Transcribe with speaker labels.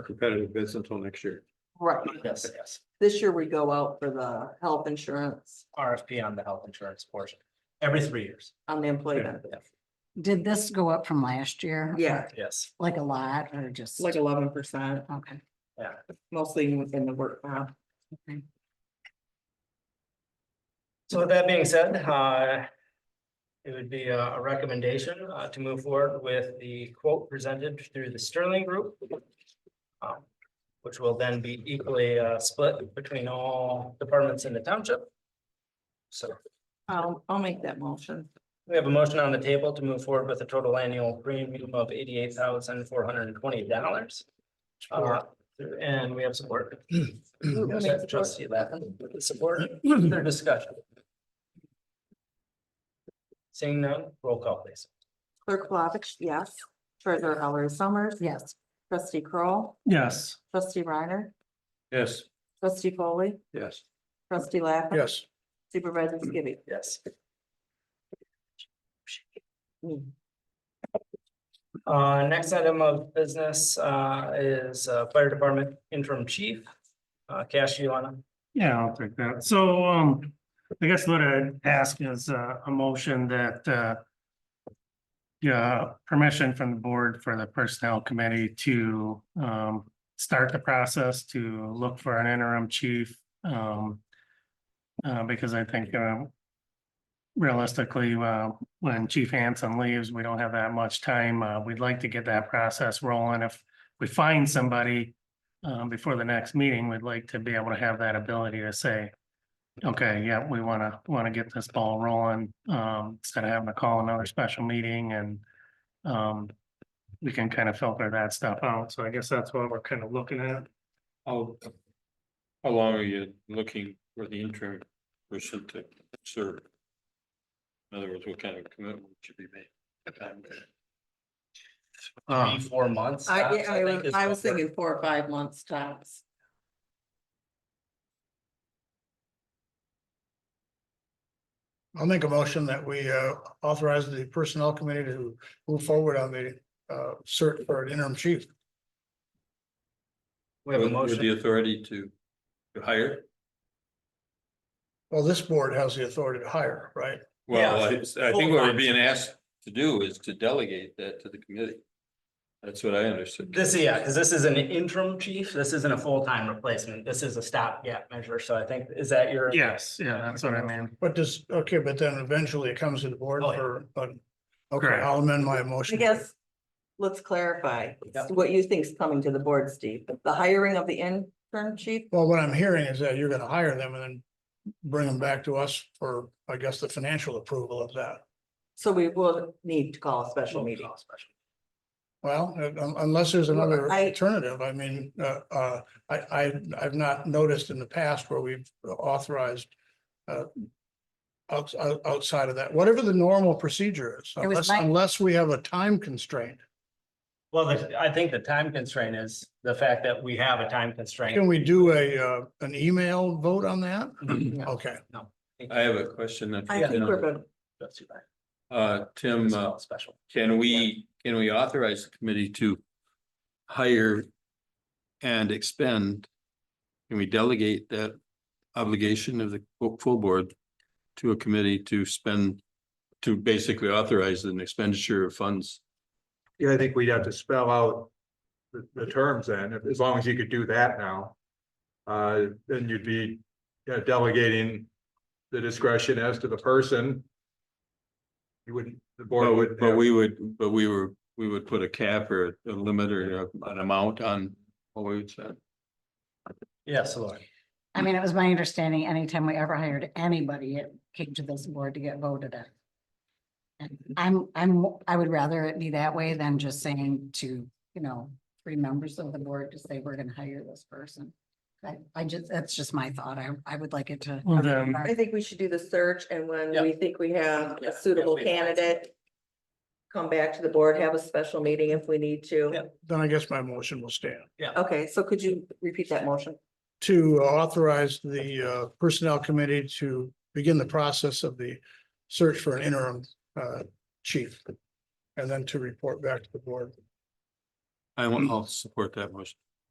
Speaker 1: for competitive bids until next year.
Speaker 2: Right,
Speaker 3: Yes, yes,
Speaker 2: this year we go out for the health insurance
Speaker 3: RFP on the health insurance portion, every three years,
Speaker 2: on the employee benefit.
Speaker 4: Did this go up from last year?
Speaker 2: Yeah,
Speaker 3: yes.
Speaker 4: Like a lot or just?
Speaker 2: like eleven percent,
Speaker 4: Okay.
Speaker 2: mostly in the work comp.
Speaker 3: So with that being said, uh. It would be a a recommendation uh to move forward with the quote presented through the Sterling Group. um, Which will then be equally uh split between all departments in the township. So
Speaker 2: I'll, I'll make that motion.
Speaker 3: we have a motion on the table to move forward with a total annual premium of eighty-eight thousand four hundred and twenty dollars. Uh, And we have support.
Speaker 2: makes support?
Speaker 3: Trustee Lappin, with the support, further discussion. Seeing none, roll call please.
Speaker 2: Clerk Flavich, yes. Treasurer Ellery Summers.
Speaker 4: Yes,
Speaker 2: Trustee Kroll,
Speaker 5: Yes.
Speaker 2: trustee Reiner,
Speaker 1: Yes.
Speaker 2: trustee Foley,
Speaker 1: Yes.
Speaker 2: trustee Lappin.
Speaker 1: Yes.
Speaker 2: Supervisor Skibby.
Speaker 3: Yes.
Speaker 2: Mm.
Speaker 3: Uh, next item of business, uh, is, uh, Fire Department interim chief. Uh, Cash, you wanna?
Speaker 5: Yeah, I'll take that. So, um, I guess what I'd ask is uh, a, a motion that, uh, yeah, permission from the board for the personnel committee to, um, start the process to look for an interim chief, um, uh, because I think, uh, realistically, uh, when Chief Hanson leaves, we don't have that much time. Uh, we'd like to get that process rolling. If we find somebody, um, before the next meeting, we'd like to be able to have that ability to say, okay, yeah, we want to, want to get this ball rolling, um, instead of having to call another special meeting and, um, we can kind of filter that stuff out. So I guess that's what we're kind of looking at.
Speaker 1: How, how long are you looking for the interim person to serve? In other words, what kind of commitment should be made? Ah.
Speaker 3: Three, four months.
Speaker 2: I,
Speaker 3: tops,
Speaker 2: yeah, I
Speaker 3: think
Speaker 2: was,
Speaker 3: is
Speaker 2: I
Speaker 3: what
Speaker 2: was
Speaker 3: we're-
Speaker 2: thinking four or five months tops.
Speaker 6: I'll make a motion that we uh, authorize the personnel committee to move forward on the uh, search for an interim chief.
Speaker 3: We have a
Speaker 1: With- With the
Speaker 3: motion,
Speaker 1: authority to, to hire?
Speaker 6: Well, this board has the authority to hire, right?
Speaker 1: Well,
Speaker 3: Yeah.
Speaker 1: I I think what we're being asked to do is to delegate that to the committee. That's what I understood.
Speaker 3: this, yeah, because this is an interim chief, this isn't a full-time replacement, this is a stopgap measure, so I think, is that your?
Speaker 5: Yes, yeah, that's what I mean.
Speaker 6: But does, okay, but then eventually it comes to the board
Speaker 3: Oh, yeah.
Speaker 6: for, but, okay,
Speaker 5: Correct.
Speaker 6: I'll amend my
Speaker 2: I
Speaker 6: motion.
Speaker 2: guess, let's clarify
Speaker 3: Yeah.
Speaker 2: what you think's coming to the board, Steve. The hiring of the intern chief
Speaker 6: Well, what I'm hearing is that you're gonna hire them and then bring them back to us for, I guess, the financial approval of that.
Speaker 2: So we will need to call a special
Speaker 3: We'll
Speaker 2: meeting.
Speaker 3: call a special.
Speaker 6: Well, uh, un- unless there's another
Speaker 2: I-
Speaker 6: alternative, I mean, uh, uh, I, I, I've not noticed in the past where we've authorized. uh, outs- out- outside of that, whatever the normal procedure is,
Speaker 4: was
Speaker 6: unless,
Speaker 4: my-
Speaker 6: unless we have a time constraint.
Speaker 3: Well, the- I think the time constraint is the fact that we have a time
Speaker 6: Can
Speaker 3: constraint.
Speaker 6: we do a, uh, an email vote on that?
Speaker 3: No.
Speaker 6: Okay,
Speaker 1: I have a question. that-
Speaker 2: I think we're good.
Speaker 3: That's too bad.
Speaker 1: Uh, Tim,
Speaker 3: It's
Speaker 1: uh,
Speaker 3: not Special.
Speaker 1: Can we, can we authorize the committee to hire and expend? Can we delegate that obligation of the full board to a committee to spend, to basically authorize an expenditure of funds?
Speaker 7: Yeah, I think we'd have to spell out the, the terms then, if- as long as you could do that now. Uh, then you'd be you know, delegating the discretion as to the person. You wouldn't, the board would.
Speaker 1: But we would, but we were, we would put a cap or a limit or a- an amount on what we would spend.
Speaker 3: Yes, Lord.
Speaker 4: I mean, it was my understanding, anytime we ever hired anybody, it came to this board to get voted on. And I'm, I'm, I would rather it be that way than just saying to, you know, three members of the board to say, we're gonna hire this person. I, I just, that's just my thought, I, I would like it to.
Speaker 5: Well, then-
Speaker 2: I think we should do the search and when
Speaker 3: Yeah.
Speaker 2: we think we have
Speaker 3: Yeah,
Speaker 2: a suitable
Speaker 3: yeah, we-
Speaker 2: candidate, come back to the board, have a special meeting if we need
Speaker 3: Yeah.
Speaker 2: to.
Speaker 6: then I guess my motion will stand.
Speaker 2: Okay, so could you repeat that motion?
Speaker 6: to authorize the uh, Personnel Committee to begin the process of the search for an interim uh, chief. And then to report back to the board.
Speaker 1: I will, I'll support that motion.